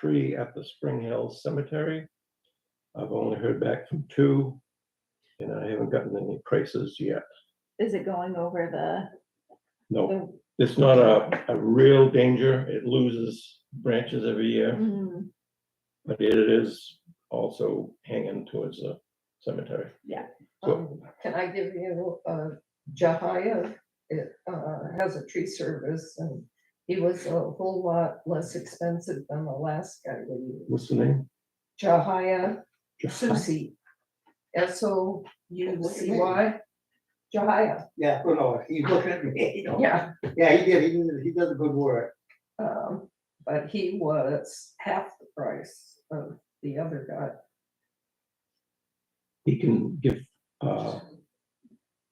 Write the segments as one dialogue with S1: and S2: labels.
S1: tree at the Spring Hills Cemetery. I've only heard back from two, and I haven't gotten any prices yet.
S2: Is it going over
S1: No,
S2: the?
S1: it's not a, a real danger. It loses branches every
S2: the-
S1: year,
S2: mm,
S1: but it is also hanging towards the cemetery.
S3: Um, Can I give you, uh, Jahia, it, uh, has a tree service and he was a whole lot less expensive than the last guy we used.
S1: What's the name?
S3: Jahia Susi, S O U C Y, Jahia,
S4: Yeah, oh no, he's looking at me. you know.
S3: yeah.
S4: Yeah, he did, he did, he does a good work.
S3: Um, but he was half the price of the other guy.
S1: He can give, uh,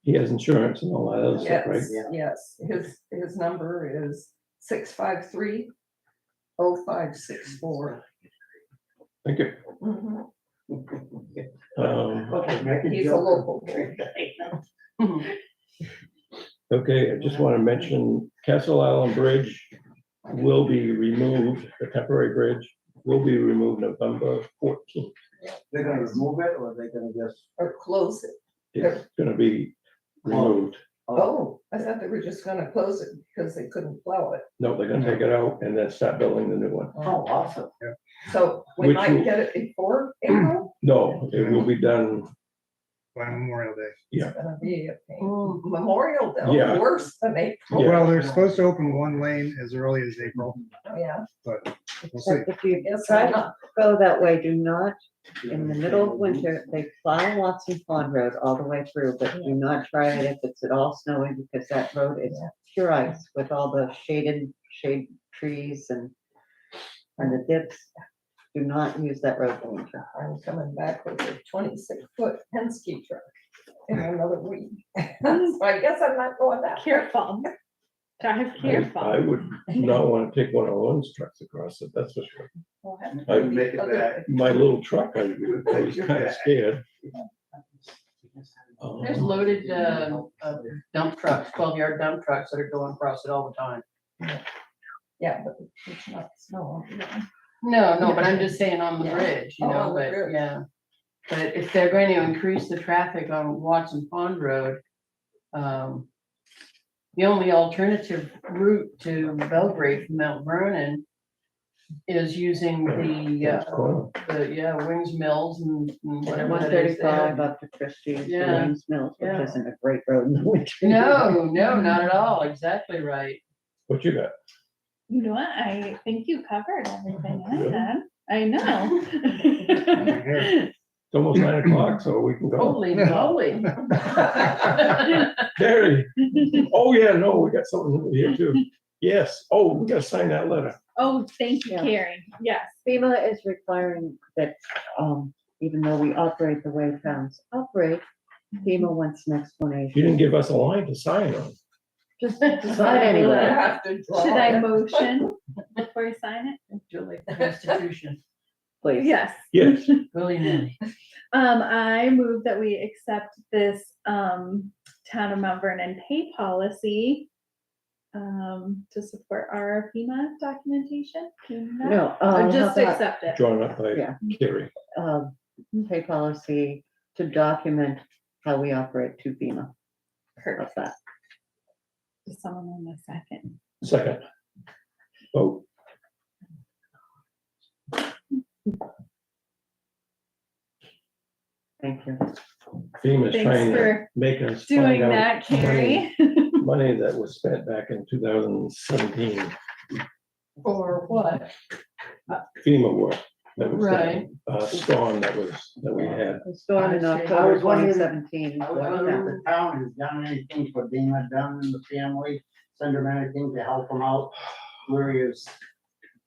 S1: he has insurance and all that other stuff, right?
S3: Yes,
S4: Yeah.
S3: yes, his, his number is six five three oh five six four.
S1: Thank you. Um,
S4: Okay, make it
S3: He's a
S4: joke.
S3: local boy.
S1: okay, I just want to mention Castle Island Bridge will be removed, the temporary bridge will be removed November fourteenth.
S4: They're gonna remove it or they're gonna just,
S3: Or close it.
S1: It's gonna be removed.
S3: Oh, I thought they were just gonna close it because they couldn't plow it. Um,
S1: No, they're gonna take it out and then start building the new one.
S4: oh, awesome.
S3: So we
S1: Which
S3: might
S1: will-
S3: get it before April.
S1: No, it will be done,
S5: by Memorial Day.
S1: Yeah.
S3: It's gonna be a pain. Memorial Day,
S1: Yeah.
S3: worse than April,
S1: Yeah.
S5: Oh, Well, they're supposed to open one lane as early as April,
S3: Oh, yeah.
S5: but we'll see.
S6: But if you
S3: Yes,
S6: try
S3: I
S6: to
S3: know.
S6: go that way, do not, in the middle of winter, they plow Watson Pond Road all the way through, but do not try it if it's at all snowy, because that road is pure ice with all the shaded, shade trees and, and the dips. Do not use that road in winter.
S3: I'm coming back with a twenty-six foot Penske truck in another week. So I guess I'm not going that. way.
S2: Careful. Drive
S1: I, I
S2: careful.
S1: would not want to take one of Lon's trucks across it, that's for sure.
S3: We'll have to
S1: I
S3: do
S4: make it
S3: other
S4: back.
S3: thing.
S1: My little truck, I I was kind of scared. Um,
S7: There's loaded, uh, uh, dump trucks, twelve yard dump trucks that are going across it all the time.
S3: Yeah, but it's not snow.
S7: No, no, but I'm just saying on the
S3: Yeah.
S7: bridge, you
S3: Oh,
S7: know,
S3: on the
S7: but
S3: bridge.
S7: yeah. But if they're going to increase the traffic on Watson Pond Road, um, the only alternative route to Belgrade from Mount Vernon is using the,
S1: it's
S7: uh,
S1: corner.
S7: the, yeah, Wings Mills and and whatever
S6: One
S7: that is
S6: thirty-five
S7: there.
S6: up to Christie's,
S7: Yeah.
S6: Williams Mills, which
S7: Yeah.
S6: isn't a great road in the winter.
S7: No, no, not at all. Exactly right.
S1: What you got?
S2: You know what? I think you covered everything I
S1: Really?
S2: had. I know.
S1: It's almost nine o'clock, so we can go.
S7: Holy moly.
S1: Terry, oh yeah, no, we got something over here too. Yes, oh, we gotta sign that letter.
S2: Oh, thank you,
S6: Yeah.
S2: Carrie. Yes.
S6: FEMA is requiring that, um, even though we operate the way towns operate, FEMA wants an explanation.
S1: You didn't give us a line to sign on.
S6: Just
S3: I
S6: decide anyway.
S3: have to draw
S2: Should I
S3: it.
S2: motion before I sign
S7: Julie, Constitution,
S2: it?
S6: Please.
S2: Yes.
S1: Yes,
S7: willy-nilly.
S2: Um, I move that we accept this, um, town of Mount Vernon pay policy um, to support our FEMA documentation. Can you not-
S6: No,
S2: Or
S6: uh,
S2: just
S6: just
S2: accept it.
S1: drawn up by
S6: Yeah.
S1: Terry.
S6: um, pay policy to document how we operate to FEMA. How's
S2: Perfect.
S6: that?
S2: Does Someone on the second.
S1: Second. Oh, Vote.
S6: Thank you.
S1: FEMA's
S2: Thanks
S1: trying to
S2: for
S1: make us
S2: Doing
S1: find out
S2: that, Carrie.
S1: money that was spent back in two thousand seventeen
S7: Or what?
S1: FEMA work. That was
S7: Right.
S1: that, uh, storm that was, that we had.
S6: It's gone in
S7: I see.
S4: I
S6: October
S4: was wondering-
S6: twenty seventeen.
S4: I was wondering if the town has done anything for Dana Dunn and the family, send them anything to help them out. Where he is,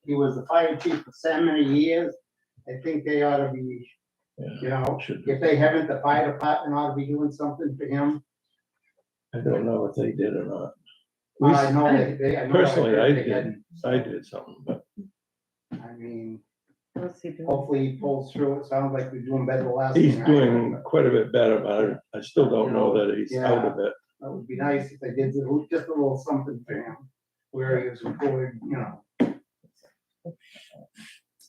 S4: he was the fire chief for so many years. I think they ought to be, you know,
S1: Should-
S4: if they haven't, the fire department ought to be doing something for him.
S1: I don't know if they did or not. We
S4: I
S1: s-
S4: know they, they. know they-
S1: Personally, I
S4: they
S1: did, I did something, but
S4: I mean,
S6: What's he doing?
S4: hopefully he pulls through. It sounds like we're doing better the last.
S1: he's
S4: thing I
S1: doing
S4: heard.
S1: quite a bit better, but I, I still don't know that he's out of it.
S4: That would be nice if they did a little- just a little something for him, where he was employed, you know.